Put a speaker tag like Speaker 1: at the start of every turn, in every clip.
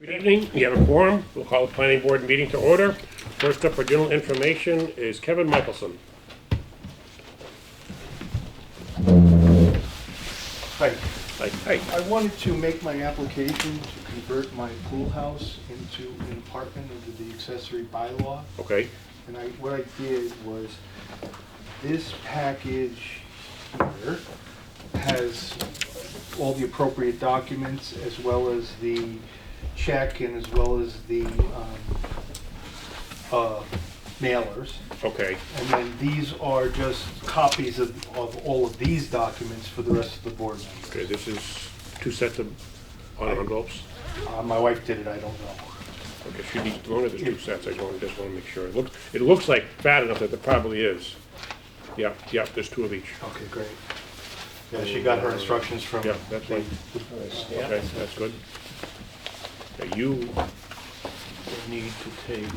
Speaker 1: Good evening, we have a quorum, we'll call the planning board meeting to order. First up for general information is Kevin Michelson.
Speaker 2: Hi,
Speaker 1: Like, hey,
Speaker 2: I wanted to make my application to convert my pool house into an apartment under the accessory bylaw.
Speaker 1: okay,
Speaker 2: And I, what I did was, this package here has all the appropriate documents as well as the check and as well as the, um, uh, mailers.
Speaker 1: okay,
Speaker 2: And then these are just copies of, of all of these documents for the rest of the board members.
Speaker 1: okay, this is two sets of honor envelopes.
Speaker 2: Uh, my wife did it, I don't know.
Speaker 1: Okay, she needs, one of the two sets, I want- just wanna make sure. It looks, it looks like fat enough that there probably is. Yep, yep, there's two of each.
Speaker 2: Okay, great. Yeah, she got her instructions from.
Speaker 1: Yeah, that's
Speaker 2: the-
Speaker 1: right. Okay, that's good. Okay, You,
Speaker 3: They need to take,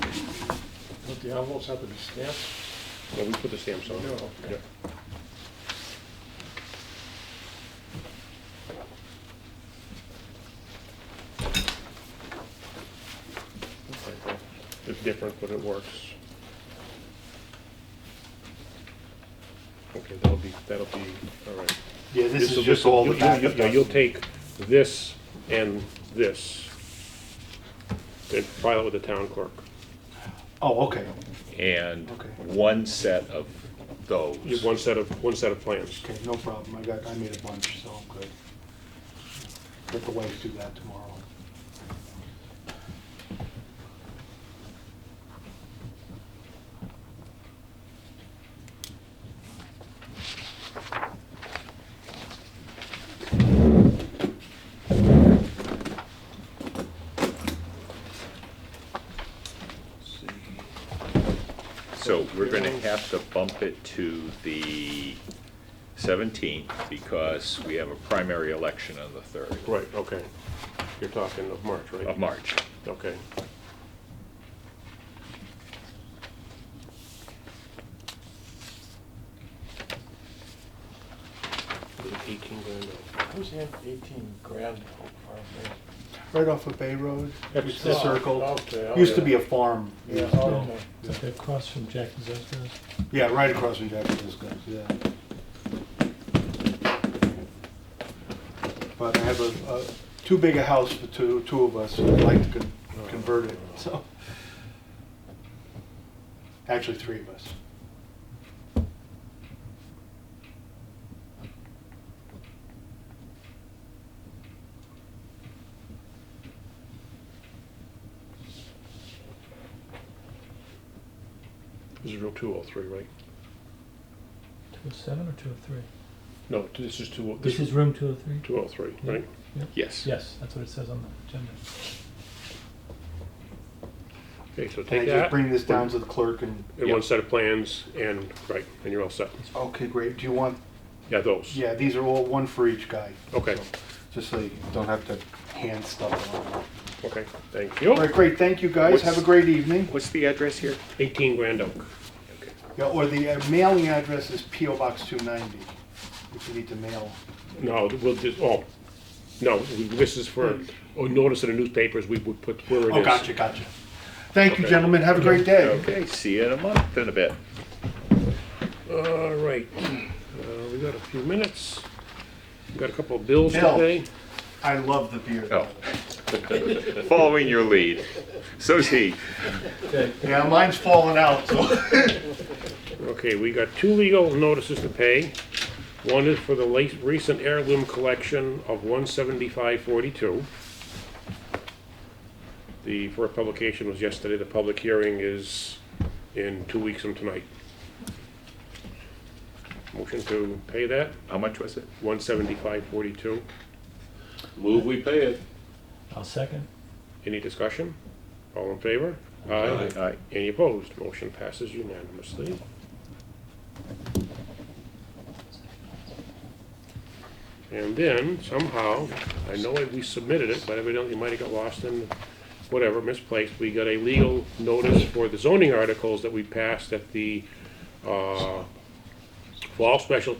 Speaker 3: don't the envelopes have to be stamped?
Speaker 1: well, we put the stamps on.
Speaker 3: No, okay.
Speaker 1: Yep. It's different, but it works. Okay, that'll be, that'll be, all right.
Speaker 2: Yeah, this
Speaker 1: This'll-
Speaker 2: is just all the
Speaker 1: this'll- you-
Speaker 2: backup.
Speaker 1: you- you- You'll take this and this, and file it with the town clerk.
Speaker 2: documents. Oh, okay,
Speaker 4: and
Speaker 2: Okay.
Speaker 4: one set of those.
Speaker 1: You- One set of, one set of plans.
Speaker 2: okay, no problem, I got, I made a bunch, so I'm good. Let the wife do that tomorrow.
Speaker 4: So we're gonna have to bump it to the seventeenth because we have a primary election on the third
Speaker 1: Right, okay. You're talking of March, right?
Speaker 4: of March.
Speaker 1: Okay. Eighteen grand.
Speaker 3: Who's in eighteen grand? for
Speaker 2: Right off of Bay Road,
Speaker 3: That's
Speaker 2: it's the
Speaker 3: south,
Speaker 2: circle,
Speaker 3: okay,
Speaker 2: used to
Speaker 3: yeah.
Speaker 2: be a farm.
Speaker 3: a
Speaker 2: years
Speaker 3: farm?
Speaker 2: ago.
Speaker 3: Okay.
Speaker 5: oh. Is that across from Jack and Zosco's?
Speaker 2: Yeah, right across from Jackson's Guns, yeah. But I have a, a, too big a house for two, two of us, so I'd like to con- convert it, so. Actually, three of us.
Speaker 1: This is real two oh three, right?
Speaker 5: Two oh seven or two oh three?
Speaker 1: No, this is two,
Speaker 5: This is room two oh three?
Speaker 1: Two oh three, right?
Speaker 4: Yes.
Speaker 5: Yes, that's what it says on the agenda.
Speaker 1: Okay, so
Speaker 2: Can I
Speaker 1: take
Speaker 2: just
Speaker 1: that,
Speaker 2: bring this down to the clerk and,
Speaker 1: and one set of plans, and, right, and you're all set.
Speaker 2: okay, great, do you want,
Speaker 1: Yeah, those.
Speaker 2: yeah, these are all, one for each guy.
Speaker 1: Okay.
Speaker 2: so, Just so you don't have to hand stuff around.
Speaker 1: Okay, thank
Speaker 2: All
Speaker 1: you.
Speaker 2: right, great, thank you guys, have a
Speaker 4: What's-
Speaker 2: great evening.
Speaker 4: What's the address here?
Speaker 1: Eighteen Grand Oak.
Speaker 2: Yeah, or the uh, mailing address is PO Box two ninety, if you need to mail.
Speaker 1: No, we'll just, oh, no, we- this is for, oh, notice in the newspapers, we would put where it is.
Speaker 2: Oh, gotcha, gotcha. Thank you,
Speaker 1: Okay.
Speaker 2: gentlemen, have a great day.
Speaker 4: Okay, see you in a month in a bit.
Speaker 1: All right, uh, we got a few minutes. We got a couple of bills
Speaker 2: Bill.
Speaker 1: today.
Speaker 2: I love the beer.
Speaker 4: Oh. Following your lead. So's he.
Speaker 2: Yeah, mine's falling out, so.
Speaker 1: Okay, we got two legal notices to pay. One is for the late, recent heirloom collection of one seventy-five forty-two. The first publication was yesterday, the public hearing is in two weeks from tonight. Motion to pay that,
Speaker 4: How much was it?
Speaker 1: one seventy-five forty-two.
Speaker 4: Move we pay it.
Speaker 5: I'll second.
Speaker 1: Any discussion? All in favor? Aye.
Speaker 4: Aye.
Speaker 1: Any opposed? Motion passes unanimously. And then somehow, I know that we submitted it, but evidently it might have got lost in whatever, misplaced. We got a legal notice for the zoning articles that we passed at the, uh, fall special